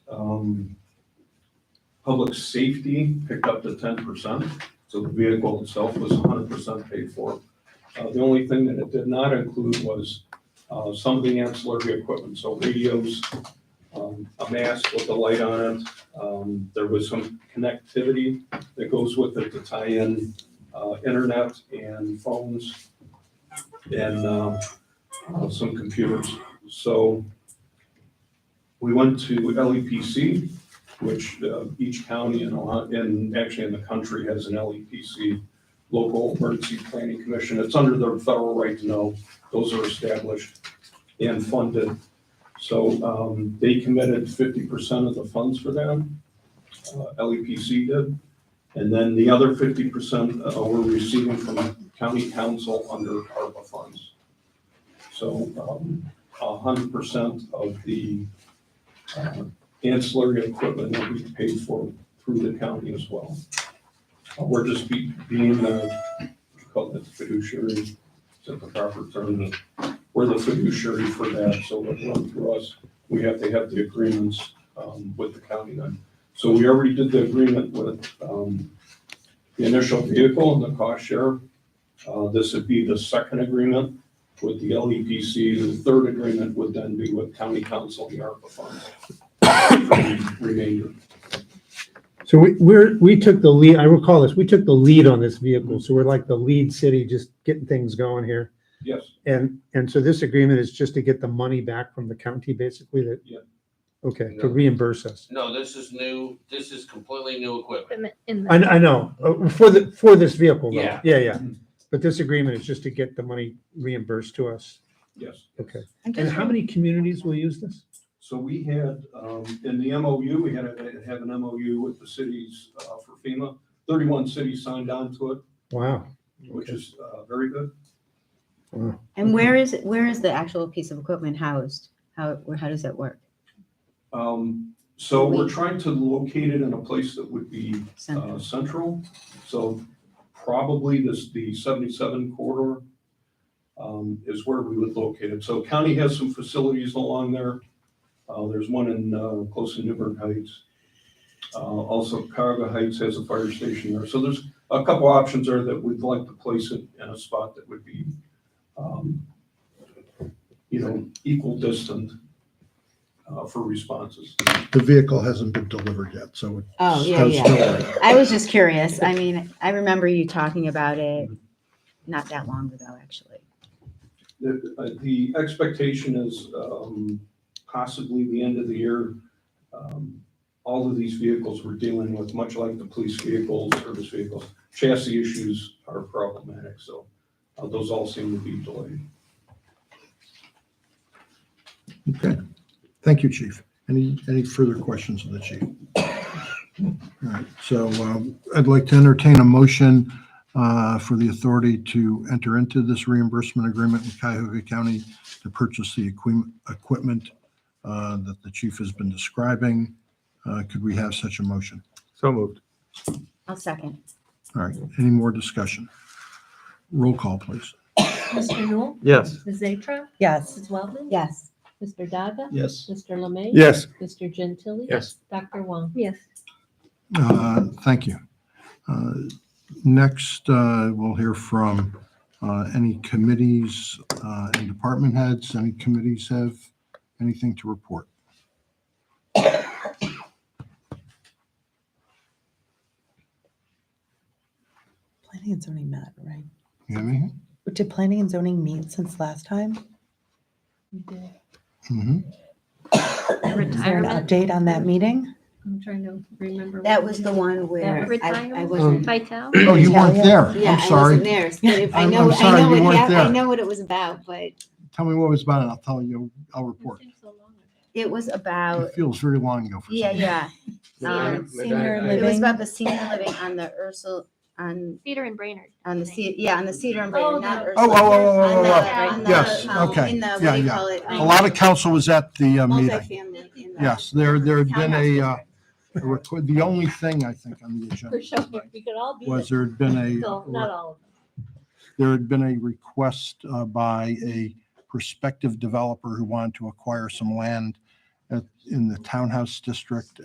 um, public safety picked up to ten percent, so the vehicle itself was hundred percent paid for. Uh, the only thing that it did not include was, uh, some of the ancillary equipment, so radios, um, a mask with a light on it. Um, there was some connectivity that goes with it to tie in, uh, internet and phones and, um, uh, some computers. So we went to LEPC, which uh, each county in, Ohio- in, actually in the country has an LEPC, Local Emergency Planning Commission. It's under the federal right to know. Those are established and funded. So um, they committed fifty percent of the funds for that. uh, LEPC did. And then the other fifty percent uh, we're receiving from county council under ARPA funds. So um, a hundred percent of the uh, ancillary equipment will be paid for through the county as well. Uh, We're just be- being, uh, we call it fiduciary, is that the proper term? We're the fiduciary for that, so it runs through us. We have to have the agreements um, with the county then. So we already did the agreement with um, the initial vehicle and the cost share. Uh, This would be the second agreement with the LEPC, the third agreement would then be with county council, the ARPA funds. for the Remainder. So we, we're, we took the lead, I recall this, we took the lead on this vehicle, so we're like the lead city, just getting things going here. Yes, And, and so this agreement is just to get the money back from the county, basically, that? Yeah. Okay, Yeah. to reimburse us. No, this is new, this is completely new equipment. equipment in I, the, I know, uh, for the, for this vehicle, though. Yeah. Yeah, Mm-hmm. yeah. But this agreement is just to get the money reimbursed to us. yes. Okay. And I'm just how many communities will use this? So we had, um, in the MOU, we had to have an MOU with the cities uh, for FEMA. Thirty-one cities signed on to it, Wow. which is uh, very good. And where is, it? where is the actual piece of equipment housed? How, where- how does that work? Um, So we're trying to locate it in a place that would be uh, Central? central. So probably this, the 77 corridor um, is where we would locate it. So county has some facilities along there. Uh, There's one in, uh, close to Newburgh Heights. Uh, Also Cuyahoga Heights has a fire station there. So there's a couple options there that we'd like to place it in a spot that would be, um, you know, equal distant uh, for responses. The vehicle hasn't been delivered yet, so it. Oh, yeah, it's yeah. still- I was just curious. I mean, I remember you talking about it not that long ago, actually. The, uh, the expectation is um, possibly the end of the year. um, All of these vehicles we're dealing with, much like the police vehicles, service vehicles, chassis issues are problematic, so uh, those all seem to be delayed. Okay. Thank you, chief. Any, any further questions of the chief? All right, so um, I'd like to entertain a motion uh, for the authority to enter into this reimbursement agreement with Cuyahoga County to purchase the equi- equipment uh, that the chief has been describing. Uh, Could we have such a motion? So moved. I'll second. All right, any more discussion? Roll call, please. Mr. Newell? Yes. Ms. Zatra? Yes. Mrs. Wellman? Yes. Mr. Daga? Yes. Mr. Lemay? Yes. Mr. Gentili? Yes. Dr. Wong? yes, Uh, Thank you. Uh, Next, uh, we'll hear from uh, any committees uh, and department heads. Any committees have anything to report? Planning and zoning met, right? You have anything? Did planning and zoning meet since last time? You did. Mhm. Is there an retirement, update on that meeting? I'm trying to remember. That was the one where I, I retirement? wasn't. Vital? Oh, you weren't there. Yeah, I'm I wasn't sorry. there. So if I I'm- know, I'm I sorry know what you weren't happened, I there. know what it was about, but Tell me what it was about and I'll tell you, I'll report. it was about, It feels very long ago for Oh. yeah, some. yeah. Um, Senior It was living. about the senior living on the Ursel, on, Peter and Brainerd. on the, I think. Ce- yeah, on the Cedar and Oh, Brandon, not the- Ursel. Oh, oh, oh, oh, On oh, the- oh, oh. on the, Yes, um, okay. In the, what Yeah, do you yeah. call it? A lot of council was at the uh, meeting. Multifamily. in the- Yes, there, there had been a, uh, Townhouse a record- the only thing I think on the For sure, agenda we could all be. was there. there had been a. No, Not all of them. there had been a request uh, by a prospective developer who wanted to acquire some land at- in the townhouse district